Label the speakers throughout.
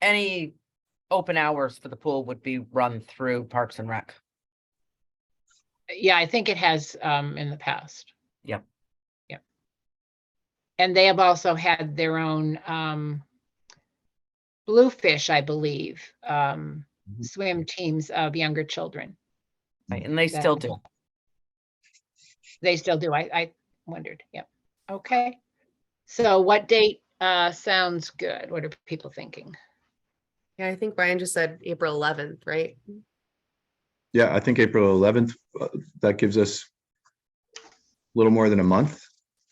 Speaker 1: any open hours for the pool would be run through Parks and Rec.
Speaker 2: Yeah, I think it has um in the past.
Speaker 1: Yep.
Speaker 2: Yep. And they have also had their own um bluefish, I believe, um
Speaker 3: Mhm.
Speaker 2: swim teams of younger children.
Speaker 1: Right, and they still
Speaker 2: Exactly.
Speaker 1: do.
Speaker 2: They still do. I I wondered. Yep. Okay. So what date uh sounds good? What are people thinking?
Speaker 4: Yeah, I think Brian just said April eleventh, right?
Speaker 3: Yeah, I think April eleventh, uh, that gives us a little more than a month.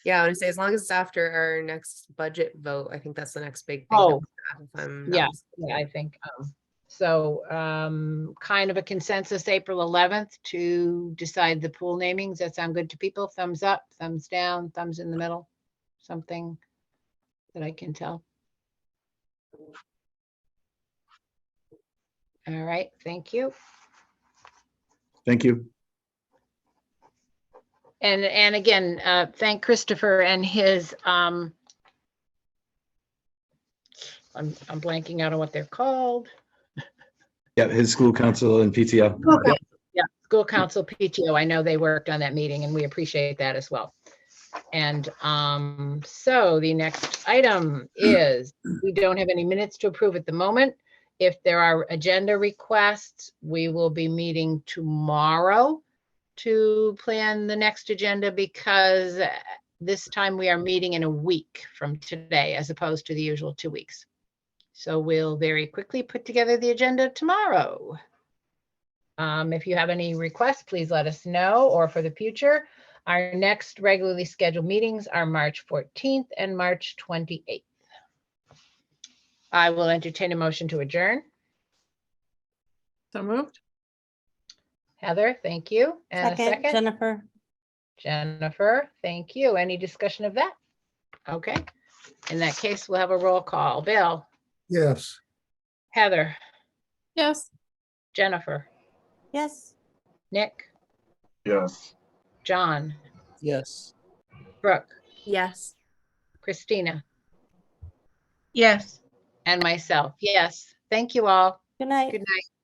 Speaker 4: Yeah, I want to say as long as it's after our next budget vote, I think that's the next big. thing that
Speaker 2: Oh.
Speaker 4: we have, if I'm not
Speaker 2: Yeah.
Speaker 4: mis-
Speaker 2: Yeah, I think um so um kind of a consensus April eleventh to decide the pool namings. That sound good to people? Thumbs up, thumbs down, thumbs in the middle, something that I can tell. All right, thank you.
Speaker 3: Thank you.
Speaker 2: And, and again, uh, thank Christopher and his, um, I'm, I'm blanking out on what they're called.
Speaker 3: Yeah, his school council and PTO.
Speaker 2: Yeah, school council PTO, I know they worked on that meeting and we appreciate that as well. And um, so the next item is, we don't have any minutes to approve at the moment. If there are agenda requests, we will be meeting tomorrow to plan the next agenda because uh, this time we are meeting in a week from today as opposed to the usual two weeks. So we'll very quickly put together the agenda tomorrow. Um, if you have any requests, please let us know or for the future. Our next regularly scheduled meetings are March fourteenth and March twenty-eighth. I will entertain a motion to adjourn.
Speaker 4: So moved?
Speaker 2: Heather, thank you. And a
Speaker 5: Second,
Speaker 2: second,
Speaker 5: Jennifer.
Speaker 2: Jennifer, thank you. Any discussion of that? Okay, in that case, we'll have a roll call. Bill,
Speaker 6: Yes.
Speaker 2: Heather,
Speaker 4: Yes.
Speaker 2: Jennifer,
Speaker 5: Yes.
Speaker 2: Nick,
Speaker 3: Yes.
Speaker 2: John,
Speaker 6: Yes.
Speaker 2: Brooke,
Speaker 4: Yes.
Speaker 2: Christina,
Speaker 7: Yes.
Speaker 2: and myself. Yes, thank you all.
Speaker 5: Good night.
Speaker 2: Good night.